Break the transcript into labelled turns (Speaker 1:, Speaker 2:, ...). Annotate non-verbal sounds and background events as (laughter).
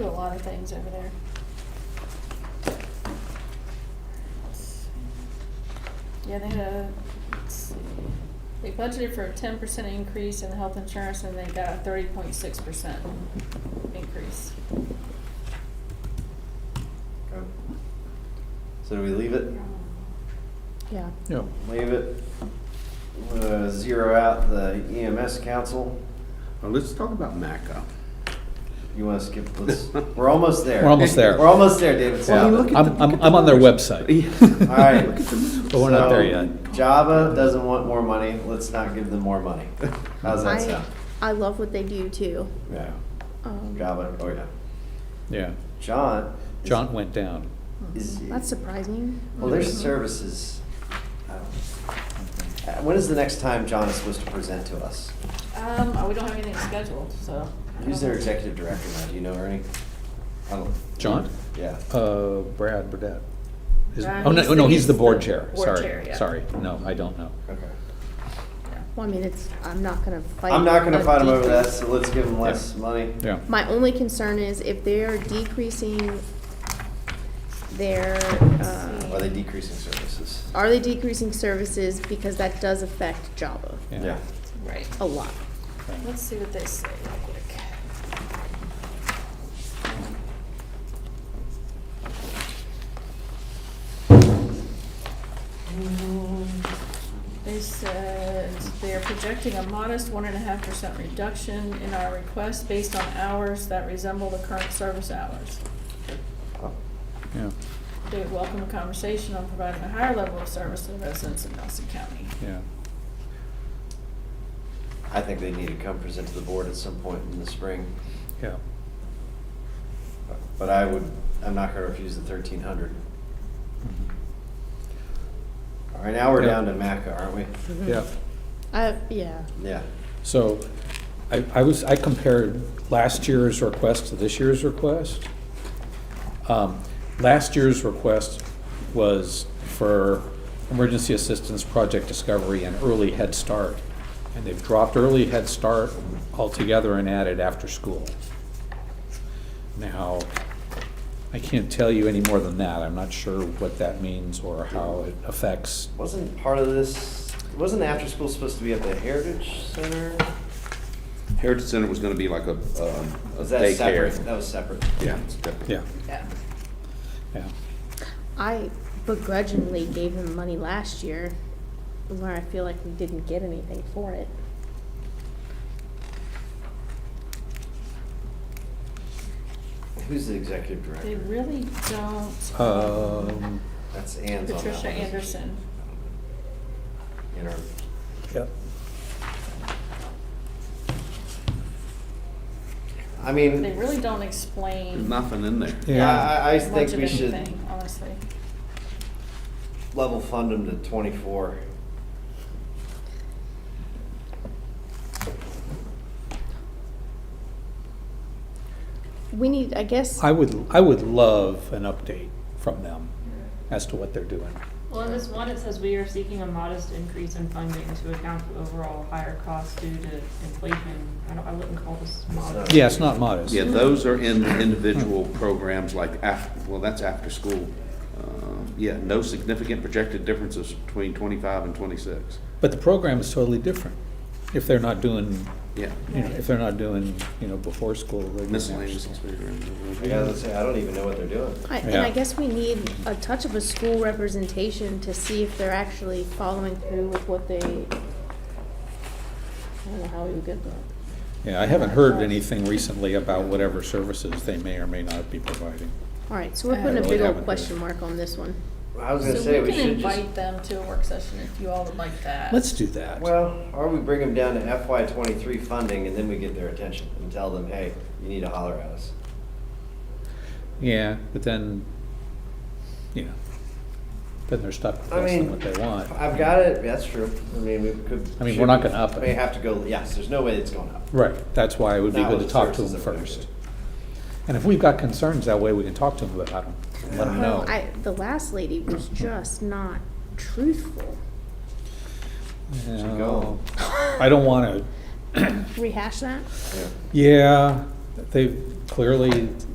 Speaker 1: lot of things over there. Yeah, they had a, let's see, they budgeted for a ten percent increase in the health insurance and they got a thirty point six percent increase.
Speaker 2: Okay. So do we leave it?
Speaker 3: Yeah.
Speaker 4: Yeah.
Speaker 2: Leave it. Uh, Zero out the EMS council.
Speaker 5: Well, let's talk about MACA.
Speaker 2: You want to skip, let's, we're almost there.
Speaker 4: (laughs) We're almost there.
Speaker 2: We're almost there, David.
Speaker 5: Well, I
Speaker 2: Stop
Speaker 5: mean, look
Speaker 2: it.
Speaker 5: at
Speaker 4: I'm,
Speaker 5: the- look
Speaker 4: I'm,
Speaker 5: at
Speaker 4: I'm
Speaker 5: the
Speaker 4: on their
Speaker 5: numbers. (laughs)
Speaker 4: website,
Speaker 2: All right.
Speaker 5: Look at the numbers.
Speaker 4: but we're not there
Speaker 2: So,
Speaker 4: yet.
Speaker 2: Java doesn't want more money. Let's not give them more
Speaker 4: (laughs)
Speaker 2: money. How's that
Speaker 3: I,
Speaker 2: sound?
Speaker 3: I love what they do too.
Speaker 2: Yeah,
Speaker 3: Um,
Speaker 2: Java, oh yeah.
Speaker 4: Yeah,
Speaker 2: John. is-
Speaker 4: John went down.
Speaker 2: Is,
Speaker 3: That's surprising.
Speaker 2: well, their services. I don't- uh, When is the next time John is supposed to present to us?
Speaker 1: Um, oh, we don't have anything scheduled, so. I
Speaker 2: Who's
Speaker 1: don't-
Speaker 2: their executive director now? Do you know Ernie? I don't.
Speaker 4: John?
Speaker 2: Yeah.
Speaker 4: Uh, Brad Burdette. Is-
Speaker 1: Uh,
Speaker 4: Oh,
Speaker 1: he's
Speaker 4: no,
Speaker 1: the-
Speaker 4: no,
Speaker 1: he's
Speaker 4: he's the
Speaker 1: the
Speaker 4: board chair,
Speaker 1: board chair,
Speaker 4: sorry,
Speaker 1: yeah.
Speaker 4: sorry, no, I don't know.
Speaker 2: Okay.
Speaker 3: Well, I mean, it's, I'm not gonna fight.
Speaker 2: I'm not gonna
Speaker 3: a
Speaker 2: fight him over that,
Speaker 3: decrease.
Speaker 2: so let's give him less money.
Speaker 4: Yeah,
Speaker 3: My only concern is if they're decreasing their,
Speaker 2: Are
Speaker 3: uh,
Speaker 2: they decreasing services?
Speaker 3: are they decreasing services because that does affect Java
Speaker 4: yeah.
Speaker 1: Right.
Speaker 3: a lot.
Speaker 1: Let's see what they say real quick. They said they are projecting a modest one and a half percent reduction in our request based on hours that resemble the current service hours.
Speaker 4: Yeah,
Speaker 1: They would welcome a conversation on providing a higher level of service to residents of Nelson County.
Speaker 4: yeah,
Speaker 2: I think they need to come present to the board at some point in the spring.
Speaker 4: yeah.
Speaker 2: But I would, I'm not gonna refuse the thirteen hundred. All right, now we're
Speaker 4: Yeah.
Speaker 2: down to MACA, aren't we?
Speaker 4: Mhm. Yeah,
Speaker 3: Uh, yeah.
Speaker 2: Yeah.
Speaker 4: so I, I was, I compared last year's request to this year's request. Um, Last year's request was for emergency assistance, project discovery, and early head start. And they've dropped early head start altogether and added after school. Now, I can't tell you any more than that. I'm not sure what that means or how it affects.
Speaker 2: Wasn't part of this, wasn't the after-school supposed to be at the Heritage Center?
Speaker 5: Heritage Center was gonna be like a, um, a
Speaker 2: Was that separate? That
Speaker 5: daycare.
Speaker 2: was separate.
Speaker 5: Yeah, it's different.
Speaker 4: Yeah,
Speaker 1: Yeah.
Speaker 4: yeah.
Speaker 3: I begrudgingly gave them money last year, where I feel like we didn't get anything for it.
Speaker 2: Who's the executive
Speaker 1: They
Speaker 2: director?
Speaker 1: really don't.
Speaker 4: Um,
Speaker 2: That's Ann's
Speaker 1: Patricia
Speaker 2: on that one, isn't she?
Speaker 1: Anderson.
Speaker 2: Interim.
Speaker 4: yeah.
Speaker 2: I mean.
Speaker 1: They really don't
Speaker 5: There's
Speaker 1: explain much
Speaker 5: nothing in there.
Speaker 4: Yeah.
Speaker 2: Yeah, I, I
Speaker 1: of
Speaker 2: think we should
Speaker 1: anything, honestly.
Speaker 2: level fund them to twenty-four.
Speaker 3: We need, I guess,
Speaker 4: I would, I would love an update from them as to what they're doing.
Speaker 6: Well, in this one, it says we are seeking a modest increase in funding to account for overall higher costs due to inflation. I don't, I wouldn't call this modest.
Speaker 4: Yeah, it's not modest.
Speaker 5: Yeah, those are in the individual programs like af, well, that's after school. Uh, Yeah, no significant projected differences between twenty-five and twenty-six.
Speaker 4: But the program is totally different. If they're not doing,
Speaker 5: Yeah.
Speaker 4: you know, if they're not doing, you know, before school, they're doing after
Speaker 5: Miscellaneous.
Speaker 4: school.
Speaker 2: I gotta say, I don't even know what they're doing.
Speaker 3: I- and
Speaker 4: Yeah.
Speaker 3: I guess we need a touch of a school representation to see if they're actually following through with what they, I don't know how we would get that.
Speaker 4: Yeah, I haven't heard anything recently about whatever services they may or may not be providing.
Speaker 3: All right, so we're
Speaker 1: I
Speaker 3: putting a
Speaker 4: really
Speaker 3: big
Speaker 4: haven't
Speaker 3: old
Speaker 4: heard.
Speaker 3: question mark on this one.
Speaker 2: I was gonna say,
Speaker 1: So we
Speaker 2: we
Speaker 1: can
Speaker 2: should just,
Speaker 1: invite them to a work session if you all would like that.
Speaker 4: Let's do that.
Speaker 2: well, or we bring them down to FY twenty-three funding and then we get their attention and tell them, hey, you need to holler at us.
Speaker 4: Yeah, but then, you know, then they're stuck with
Speaker 2: I
Speaker 4: less than
Speaker 2: mean,
Speaker 4: what they want.
Speaker 2: I've got it, that's true. I mean, we could.
Speaker 4: I mean,
Speaker 2: should
Speaker 4: we're not
Speaker 2: we-
Speaker 4: gonna up it.
Speaker 2: We have to go, yes, there's no way it's going up.
Speaker 4: Right, that's why it would be
Speaker 2: Not
Speaker 4: good
Speaker 2: with
Speaker 4: to
Speaker 2: the
Speaker 4: talk to
Speaker 2: services
Speaker 4: them
Speaker 2: that we're gonna
Speaker 4: first.
Speaker 2: do.
Speaker 4: And if we've got concerns, that way we can talk to them about them, let them know.
Speaker 3: Well, I, the last lady was just not truthful.
Speaker 2: Should go.
Speaker 4: I don't want to,
Speaker 3: Rehash that?
Speaker 2: Yeah.
Speaker 4: yeah, they've clearly